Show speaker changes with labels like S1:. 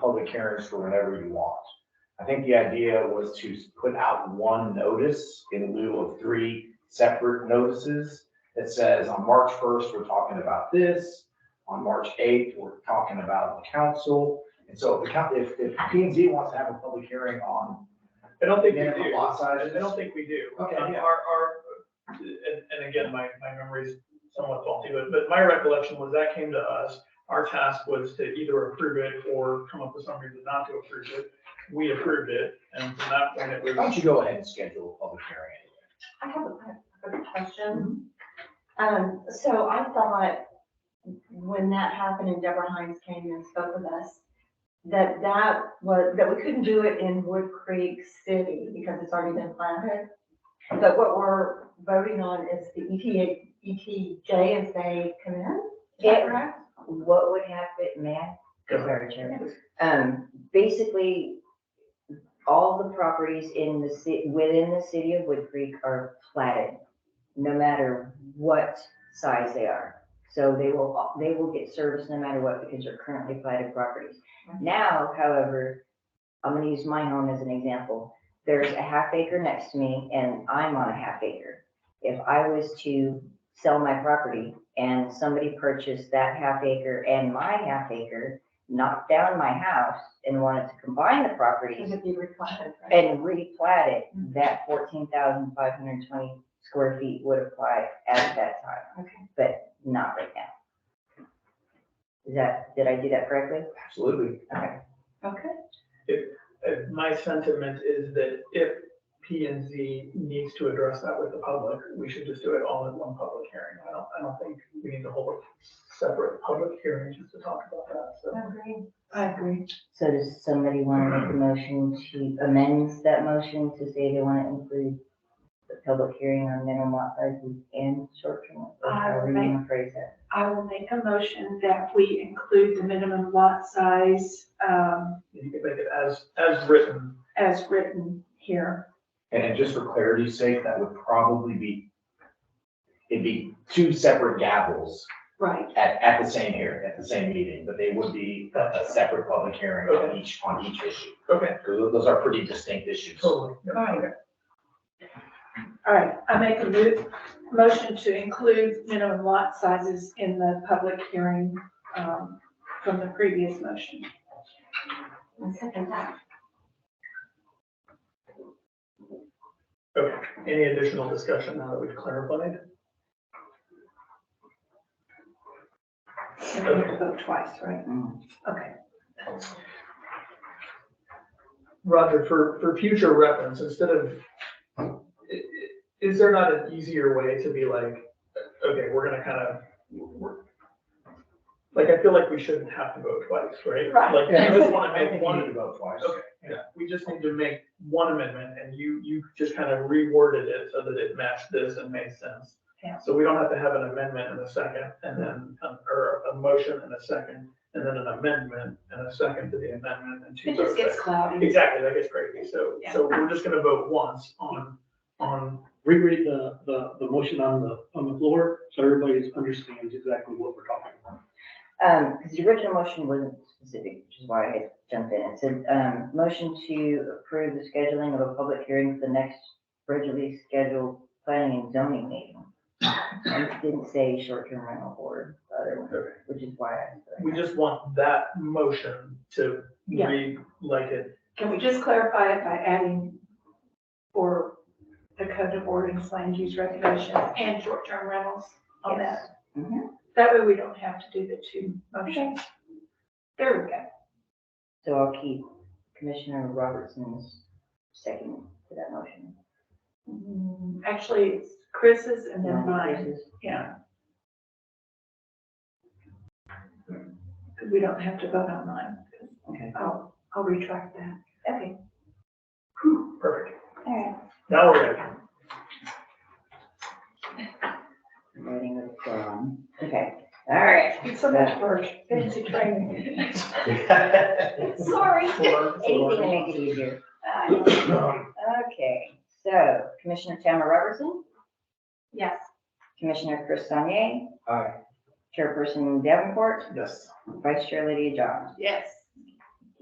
S1: public hearings for whenever you want. I think the idea was to put out one notice in lieu of three separate notices that says on March first, we're talking about this. On March eighth, we're talking about the council. And so if the coun- if, if P and Z wants to have a public hearing on
S2: I don't think we
S1: minimum
S2: do.
S1: lot sizes.
S2: I don't think we do.
S1: Okay,
S2: Um,
S1: yeah.
S2: Our, our, and, and again, my, my memory's somewhat faulty, but, but my recollection was that came to us. Our task was to either approve it or come up with some reason not to approve it. We approved it, and from that point, it
S1: Why
S2: was,
S1: don't you go ahead and schedule a public hearing anyway?
S3: I have a I have a question. Um, so I thought when that happened and Deborah Hines came and spoke with us, that that was, that we couldn't do it in Wood Creek City because it's already been planted. But what we're voting on is the E ETA, ETJ as they come in, is that
S4: Yeah.
S3: correct?
S4: what would happen, may I?
S2: Go
S4: Sorry, Chair. Um, basically, all the properties in the ci, within the city of Wood Creek are platted, no matter what size they are. So they will, they will get service no matter what because they're currently platted properties. Now, however, I'm gonna use my home as an example. There's a half acre next to me and I'm on a half acre. If I was to sell my property and somebody purchased that half acre and my half acre, knocked down my house and wanted to combine the
S3: Because
S4: properties
S3: it'd be replanted, right?
S4: and replat it,
S5: Mm-hmm.
S4: that fourteen thousand five hundred and twenty square feet would apply at that time,
S3: Okay.
S4: but not right now. Is that, did I do that correctly?
S1: Absolutely.
S3: Okay.
S2: uh, my sentiment is that if P and Z needs to address that with the public, we should just do it all in one public hearing. I don't, I don't think we need to hold a separate public hearing just to talk about that, so.
S3: Agree. I agree.
S4: So does somebody want to make a motion to amend that motion to say they want to include the public hearing on minimum lot sizes and short-term? rentals,
S5: I
S4: however you
S5: would make-
S4: wanna Phrase that.
S5: I will make a motion that we include the minimum lot size um,
S2: You can make it as, as written.
S5: as written here.
S1: And then just for clarity's sake, that would probably be, it'd be two separate gavels
S5: Right.
S1: at, at the same here, at the same meeting, but they would be a, a separate public hearing on each, on each issue.
S2: Okay.
S1: Because those are pretty distinct issues.
S2: Totally.
S5: All right. All right, I make a mo- motion to include minimum lot sizes in the public hearing um, from the previous motion.
S3: I second that.
S2: Okay, any additional discussion now that we've clarified?
S5: So we have to vote twice, right?
S4: Mm.
S5: Okay.
S2: Roger, for, for future reference, instead of, i- i- is there not an easier way to be like, okay, we're gonna kind of, we're, like, I feel like we shouldn't have to vote twice, right?
S5: Right.
S2: Like,
S1: Yeah.
S2: you just wanna
S1: I
S2: make
S1: think you
S2: one,
S1: need to vote twice.
S2: Okay, yeah, we just need to make one amendment, and you, you just kind of reworded it so that it matched this and made sense.
S5: Yeah.
S2: So we don't have to have an amendment and a second, and then, um, or a motion and a second, and then an amendment and a second to the amendment and two
S5: It
S2: votes.
S5: just gets cloudy.
S2: Exactly, that gets crazy, so,
S5: Yeah.
S2: so we're just gonna vote once on, on,
S6: reread the, the, the motion on the, on the floor, so everybody understands exactly what we're talking about.
S4: Um, because the original motion wasn't specific, which is why I jumped in. It said, um, motion to approve the scheduling of a public hearing for the next regularly scheduled planning and zoning meeting. And it didn't say short-term rental board, the other one,
S2: Okay.
S4: which is why I.
S2: we just want that motion to
S5: Yeah.
S2: read like it.
S5: Can we just clarify it by adding for the code of ordinance, land use regulations, and short-term rentals on that?
S4: Mhm.
S5: That way we don't have to do the two motions. There we go.
S4: So I'll keep Commissioner Robertson's second to that motion.
S5: Mm, Actually, it's Chris's and then mine,
S4: Increases.
S5: yeah. 'Cause we don't have to vote on mine.
S4: Okay.
S5: I'll, I'll retract that. Okay,
S2: Perfect,
S5: all right.
S2: now we're ready.
S4: Voting with, um, okay, all right.
S5: It's so much work, fancy training.
S4: Sorry.
S2: Four,
S4: Anything to
S2: four.
S4: make it easier.
S5: Uh,
S2: um,
S4: Okay, so Commissioner Tamara Robertson,
S5: Yes.
S4: Commissioner Chris Sonnier,
S1: Aye.
S4: Chairperson Davenport,
S1: Yes.
S4: Vice Chair Lydia John.
S5: Yes.